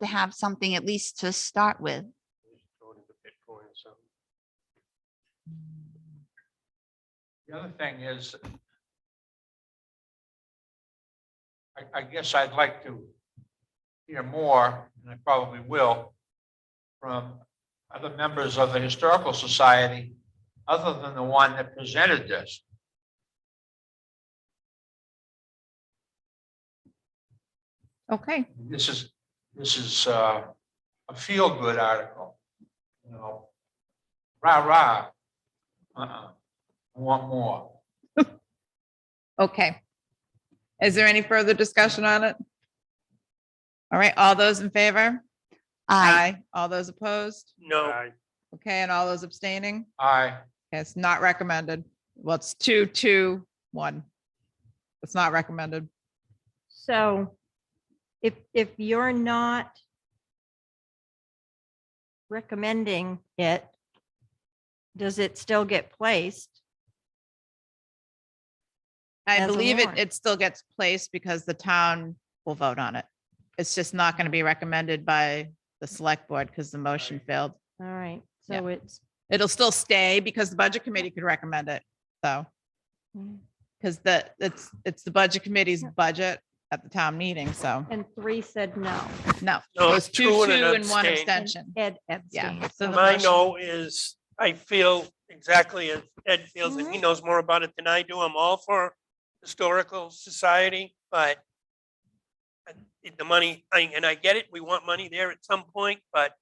to have something at least to start with. We should throw it into Bitcoin or something. The other thing is, I, I guess I'd like to hear more, and I probably will, from other members of the Historical Society, other than the one that presented this. Okay, This is, this is uh, a feel-good article, you know, rah, rah. Uh-uh, I want more. okay. Is there any further discussion on it? All right, all those in favor? I, All those opposed? No, Okay, and all those abstaining? Aye. Okay, It's not recommended. Well, it's two, two, one. It's not recommended. So if, if you're not recommending it, does it still get placed? I As a believe it, warrant. it still gets placed because the town will vote on it. It's just not going to be recommended by the select board because the motion failed. All right, Yeah. so it's, It'll still stay because the budget committee could recommend it, though. Mm. Because the, it's, it's the budget committee's budget at the town meeting, so and three said no. no. No, it was it's two and an One abstain. abstention. Ed Yeah, abstained. so So the my motion- no is, I feel exactly as Ed feels, and he knows more about it than I do. I'm all for historical society, but I- if the money, I- and I get it, we want money there at some point, but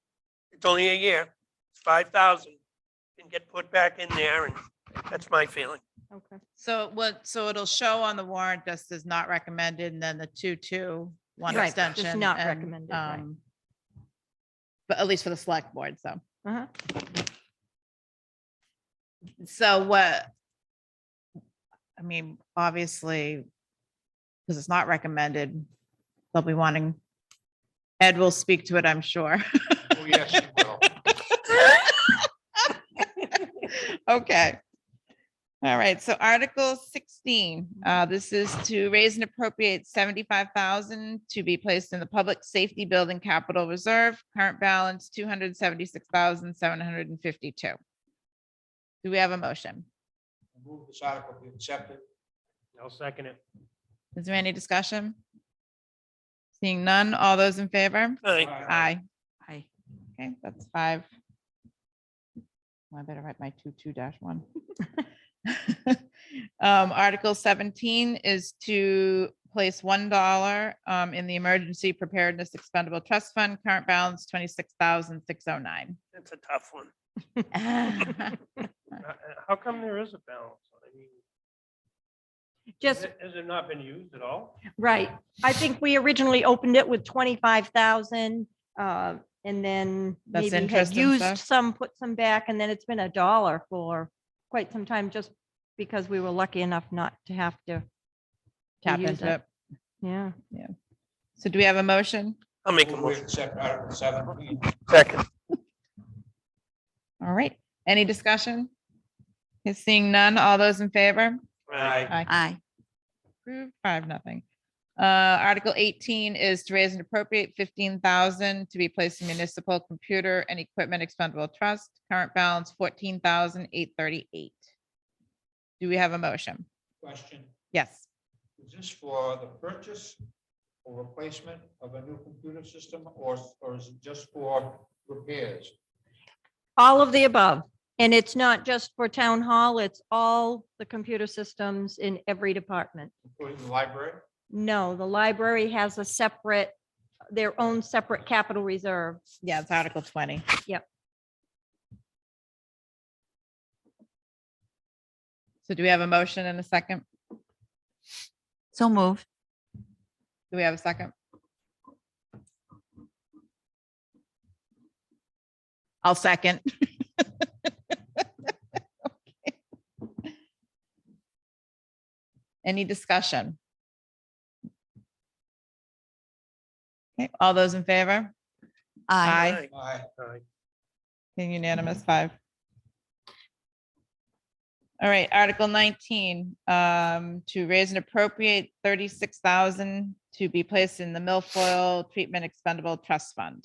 it's only a year, it's five thousand. Can get put back in there, and that's my feeling. Okay. So what, so it'll show on the warrant, this is not recommended, and then the two, two, one Right, just abstention. not and, recommended, right. um, But at least for the select board, so. Uh-huh. So what? I mean, obviously, because it's not recommended, they'll be wanting, Ed will speak to it, I'm sure. Oh, yes, you will. Okay. All right, so Article sixteen, uh, this is to raise and appropriate seventy-five thousand to be placed in the Public Safety Building Capital Reserve, current balance two hundred seventy-six thousand seven hundred and fifty-two. Do we have a motion? Move this article be accepted. I'll second it. Is there any discussion? Seeing none, all those in favor? Aye. Aye. Okay, that's five. I better write my two, two dash one. Um, Article seventeen is to place one dollar, um, in the Emergency Preparedness Expendable Trust Fund, current balance twenty-six thousand six oh nine. That's a tough one. Uh, uh, How come there is a balance? I mean, has Just, it has it not been used at all? right. I think we originally opened it with twenty-five thousand, uh, and then That's maybe had interest and used stuff. some, put some back, and then it's been a dollar for quite some time, just because we were lucky enough not to have to. to Tap use into it. Yeah. So do we have a motion? I'll make a Move we motion. accept Article seventeen. Second. All right, any discussion? Okay, Seeing none, all those in favor? Aye. I, Approved, five, nothing. Uh, Article eighteen is to raise and appropriate fifteen thousand to be placed in municipal computer and equipment expendable trust. Current balance fourteen thousand eight thirty-eight. Do we have a motion? Question, Yes. is this for the purchase or replacement of a new computer system or, or is it just for repairs? All of the above. And it's not just for town hall, it's all the computer systems in every department. Including the library? No, the library has a separate, their own separate capital reserve. Yeah, it's Article twenty. Yep. So do we have a motion and a second? so moved. Do we have a second? I'll second. Okay. Any discussion? Okay, all those in favor? I, Aye. Aye. Aye. Okay, Unanimous five. All right, Article nineteen, um, to raise and appropriate thirty-six thousand to be placed in the milfoil treatment expendable trust fund.